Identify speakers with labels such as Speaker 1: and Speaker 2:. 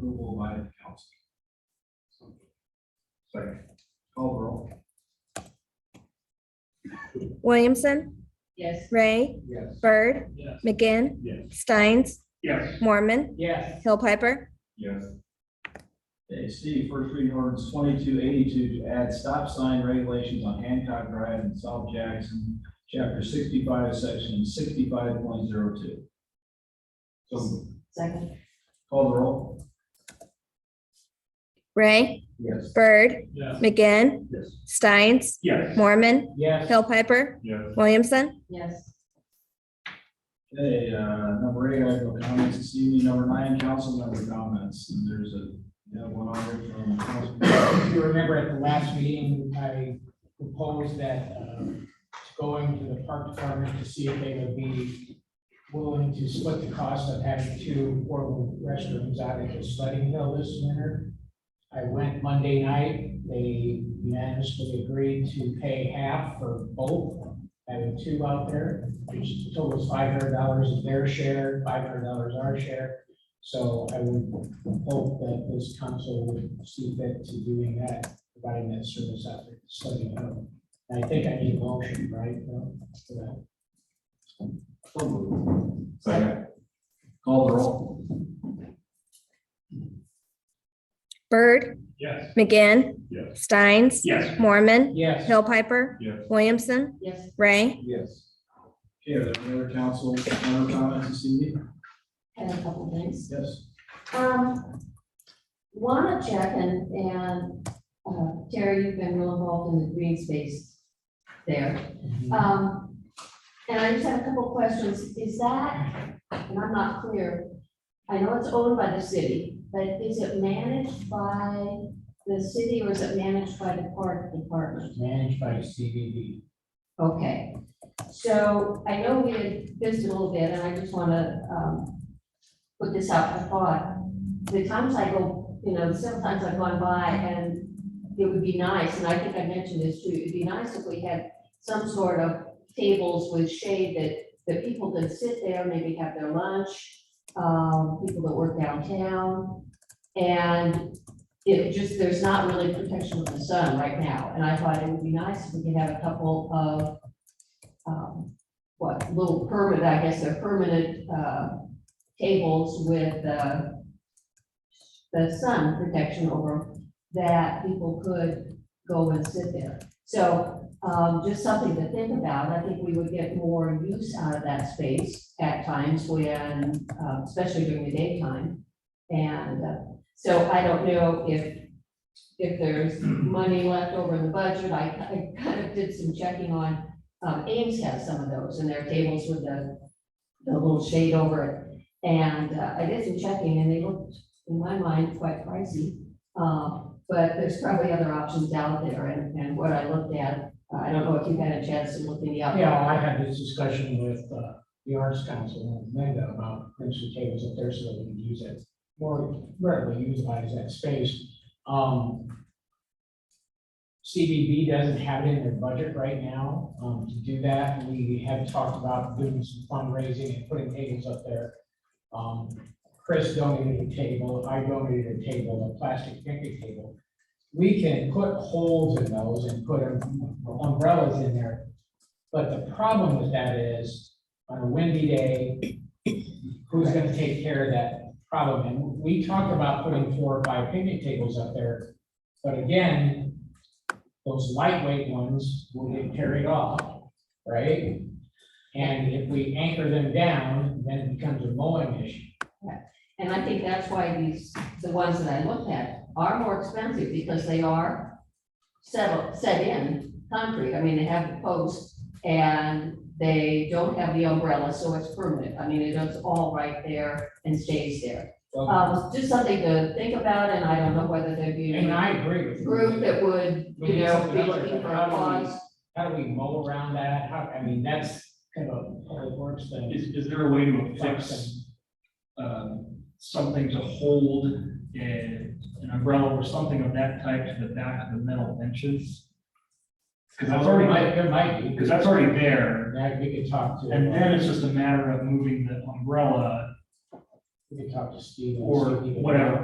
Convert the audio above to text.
Speaker 1: by the council. So, Second, call the roll.
Speaker 2: Williamson,
Speaker 3: Yes.
Speaker 2: Ray,
Speaker 1: Yes.
Speaker 2: Bird,
Speaker 1: Yes.
Speaker 2: McGinn,
Speaker 1: Yes.
Speaker 2: Steins,
Speaker 1: Yes.
Speaker 2: Mormon,
Speaker 3: Yes.
Speaker 2: Hill Piper.
Speaker 1: Yes.
Speaker 4: Okay, C, first reading ordinance twenty-two eighty-two to add stop sign regulations on Hancock Drive and South Jackson, chapter sixty-five, section sixty-five point zero two.
Speaker 1: So,
Speaker 3: Second.
Speaker 4: Call the roll.
Speaker 2: Ray,
Speaker 1: yes.
Speaker 2: Bird,
Speaker 1: Yes.
Speaker 2: McGinn,
Speaker 1: Yes.
Speaker 2: Steins,
Speaker 1: Yes.
Speaker 2: Mormon,
Speaker 4: Yes.
Speaker 2: Hill Piper,
Speaker 1: Yes.
Speaker 2: Williamson.
Speaker 3: Yes.
Speaker 4: Okay, uh, number eight, I have no comments this evening. Number nine, council member comments. And there's a, you know, one on there from Councilman.
Speaker 5: If you remember at the last meeting, I proposed that, um, going to the park department to see if they would be willing to split the cost of having two portable restrooms out at the sledding hill this winter. I went Monday night, they unanimously agreed to pay half for both, having two out there, which totals five hundred dollars is their share, five hundred dollars our share. So I would hope that this council would see fit to doing that, providing that service out there, studying home. I think I need a motion, right? Bill, for that?
Speaker 4: So moved. Second. Call the roll.
Speaker 2: Bird,
Speaker 1: Yes.
Speaker 2: McGinn,
Speaker 1: Yes.
Speaker 2: Steins,
Speaker 1: Yes.
Speaker 2: Mormon,
Speaker 5: Yes.
Speaker 2: Hill Piper,
Speaker 1: Yes.
Speaker 2: Williamson,
Speaker 3: Yes.
Speaker 2: Ray.
Speaker 4: Yes. Okay, are there any other council member comments this evening?
Speaker 3: Had a couple things.
Speaker 4: Yes.
Speaker 3: Um, wanna check and, and, uh, Terry, you've been real involved in the green space there. Um, and I just have a couple questions. Is that, and I'm not clear, I know it's owned by the city, but is it managed by the city or is it managed by the park department?
Speaker 5: Managed by CBB.
Speaker 3: Okay, so I know we had this a little bit, and I just want to, um, put this out for thought. The times I go, you know, sometimes I've gone by and it would be nice, and I think I mentioned this too, it'd be nice if we had some sort of tables with shade that, that people could sit there, maybe have their lunch, um, people that work downtown. And it just, there's not really protection of the sun right now, and I thought it would be nice if we could have a couple of, um, what, little permanent, I guess, they're permanent, uh, tables with, uh, the sun protection over 'em that people could go and sit there. So, um, just something to think about, I think we would get more use out of that space at times when, uh, especially during the daytime. And, uh, so I don't know if, if there's money left over in the budget. I, I kind of did some checking on, um, Ames has some of those and their tables with the, the little shade over it. And uh, I did some checking and they looked, in my mind, quite pricey. Um, but there's probably other options out there and, and what I looked at, uh, I don't know if you had a chance to look any up.
Speaker 5: Yeah, I had this discussion with uh, the Arts Council and Amanda about potential tables up there so that we can use it, more readily utilize that space. Um, CBB doesn't have it in their budget right now um, to do that. We have talked about doing some fundraising and putting tables up there. Um, Chris donated a table, I donated a table, a plastic picnic table. We can put holes in those and put um, umbrellas in there but the problem with that is, on a windy day, who's gonna take care of that problem? And we talked about putting four or five picnic tables up there, but again, those lightweight ones will get carried off, right? And if we anchor them down, then it becomes a mowing issue.
Speaker 3: And I think that's why these, the ones that I looked at are more expensive because they are settled, set in concrete. I mean, they have the posts and they don't have the umbrella, so it's permanent. I mean, it is all right there and stays there.
Speaker 5: Well,
Speaker 3: Um, just something to think about and I don't know whether there'd be
Speaker 5: And I
Speaker 3: a
Speaker 5: agree with you.
Speaker 3: group that would,
Speaker 5: We
Speaker 3: you
Speaker 5: need
Speaker 3: know,
Speaker 5: something
Speaker 3: be
Speaker 5: up there,
Speaker 3: looking
Speaker 5: but
Speaker 3: for
Speaker 5: how
Speaker 3: a
Speaker 5: do we-
Speaker 3: cause.
Speaker 5: How do we mow around that? How, I mean, that's kind of a public works thing.
Speaker 6: Is, is there a way to affix, um, something to hold a- an umbrella or something of that type to the back of the metal benches? Because that's
Speaker 5: Or it might,
Speaker 6: already,
Speaker 5: it might be.
Speaker 6: because that's already there,
Speaker 5: Now, we could talk to.
Speaker 6: and then it's just a matter of moving the umbrella
Speaker 5: We could talk to Steve. and
Speaker 6: or
Speaker 5: see if he could-
Speaker 6: whatever